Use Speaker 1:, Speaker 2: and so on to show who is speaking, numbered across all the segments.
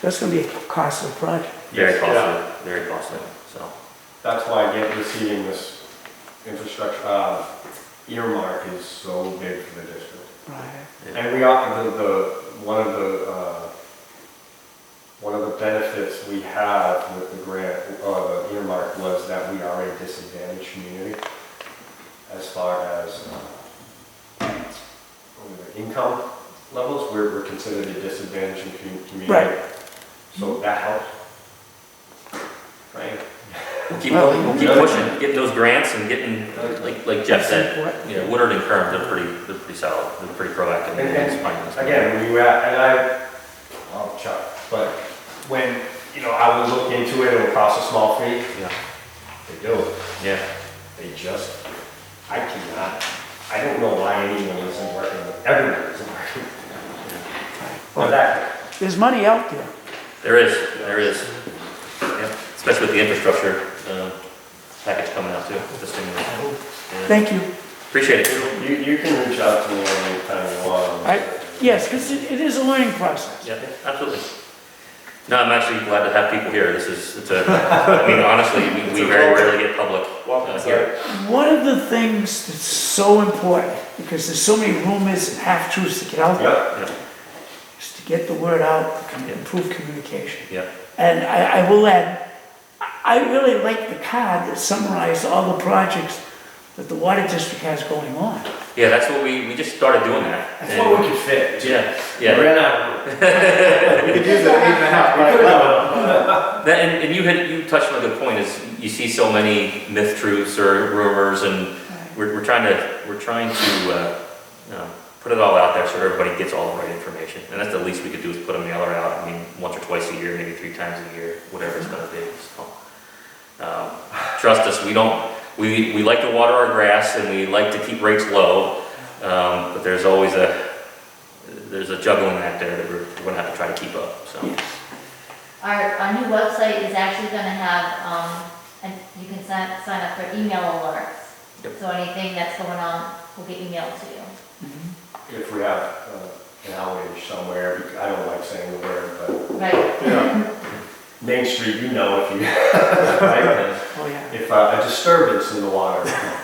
Speaker 1: That's gonna be a costly project.
Speaker 2: Very
Speaker 3: Yeah.
Speaker 2: costly, very costly, so.
Speaker 3: That's why getting, receiving this infrastructure, uh, earmark is so big for the district.
Speaker 1: Right.
Speaker 3: And we are, the, the, one of the, uh, one of the benefits we have with the grant, uh, the earmark was that we are a disadvantaged community as far as, uh, what are the income levels, we're, we're considered a disadvantaged commu- community.
Speaker 1: Right.
Speaker 3: So that helps. Right?
Speaker 2: We'll keep, going, we'll keep pushing, getting those grants and getting, like, like Jeff
Speaker 1: That's
Speaker 2: said,
Speaker 1: important.
Speaker 2: you know, Woodard and Kern, they're pretty, they're pretty solid, they're pretty proactive. in
Speaker 3: And- and
Speaker 2: finding this.
Speaker 3: Again, when you, a- and I, I'll chuck, but when, you know, I would look into it, it would cost a small fee,
Speaker 2: Yeah,
Speaker 3: they do it.
Speaker 2: yeah,
Speaker 3: They just, I cannot, I don't know why anyone isn't working, with- everyone isn't working. But that,
Speaker 1: There's money out there.
Speaker 2: there is, there is. Yeah, especially with the infrastructure, uh, package coming out too, with the stimulus. Yeah.
Speaker 1: Thank you.
Speaker 2: Appreciate it.
Speaker 3: you, you can reach out to me anytime you want.
Speaker 1: I, yes, because it is a learning process.
Speaker 2: Yeah, absolutely. No, I'm actually glad to have people here, this is, it's a, I mean, honestly, we- we very rarely get public uh, here.
Speaker 1: One of the things that's so important, because there's so many rumors and half-truths that get out there,
Speaker 3: Yep,
Speaker 2: Yeah,
Speaker 1: is to get the word out, to com-
Speaker 2: Yeah.
Speaker 1: improve communication.
Speaker 2: yeah,
Speaker 1: And I, I will add, I I really like the card that summarized all the projects that the water district has going on.
Speaker 2: yeah, that's what we, we just started doing that.
Speaker 3: that's what we could fit.
Speaker 2: Yeah,
Speaker 3: We
Speaker 2: yeah.
Speaker 3: ran out of room.
Speaker 4: We could use that eight and a half by eleven.
Speaker 2: That- and, and you had, you touched on a good point, is you see so many myth truths or rumors, and we're, we're trying to, we're trying to, uh, you know, put it all out there so everybody gets all the right information, and that's the least we could do is put a mailer out, I mean, once or twice a year, maybe three times a year, whatever it's gonna be, so. Um, Trust us, we don't, we, we like to water our grass, and we like to keep rates low, um, but there's always a, there's a juggling act there that we're, we're gonna have to try to keep up, so.
Speaker 5: Our, our new website is actually gonna have, um, and you can sign, sign up for email alerts.
Speaker 2: Yep.
Speaker 5: So anything that's going on will get emailed to you.
Speaker 3: If we have uh, an outage somewhere, bec- I don't like saying the word, but
Speaker 5: Right.
Speaker 4: Yeah,
Speaker 3: Main Street, you know if you, right?
Speaker 1: Oh, yeah.
Speaker 3: If uh, a disturbance in the water,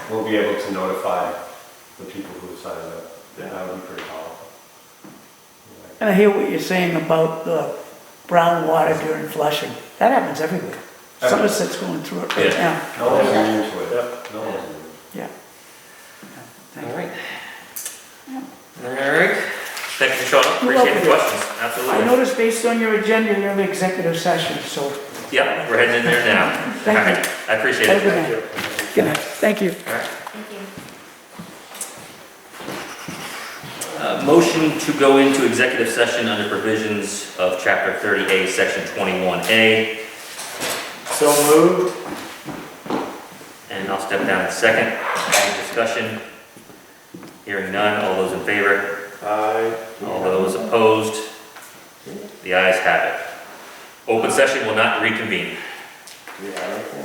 Speaker 3: we'll be able to notify the people who have signed up. That would be pretty powerful.
Speaker 1: And I hear what you're saying about the brown water during flushing. That happens everywhere. Somerset's going through it right
Speaker 2: Yeah.
Speaker 1: now.
Speaker 3: No one's immune to it. No one's immune.
Speaker 1: Yeah.
Speaker 2: All right. All right. Thank you, Sean.
Speaker 1: You're
Speaker 2: Appreciate the
Speaker 1: welcome.
Speaker 2: questions.
Speaker 1: I
Speaker 2: Absolutely.
Speaker 1: noticed based on your agenda, you're in the executive session, so
Speaker 2: Yep, we're heading in there now. All
Speaker 1: Thank you.
Speaker 2: right. I appreciate
Speaker 1: have a
Speaker 2: it.
Speaker 1: good night. Good night. Thank you.
Speaker 2: All right.
Speaker 5: Thank you.
Speaker 2: Uh, Motion to go into executive session under provisions of Chapter 30A, Section 21A,
Speaker 4: so moved.
Speaker 2: and I'll step down in a second. Any discussion? Hearing none. All those in favor?
Speaker 4: Aye.
Speaker 2: All those opposed? The ayes have it. Open session will not reconvene.
Speaker 4: Yeah.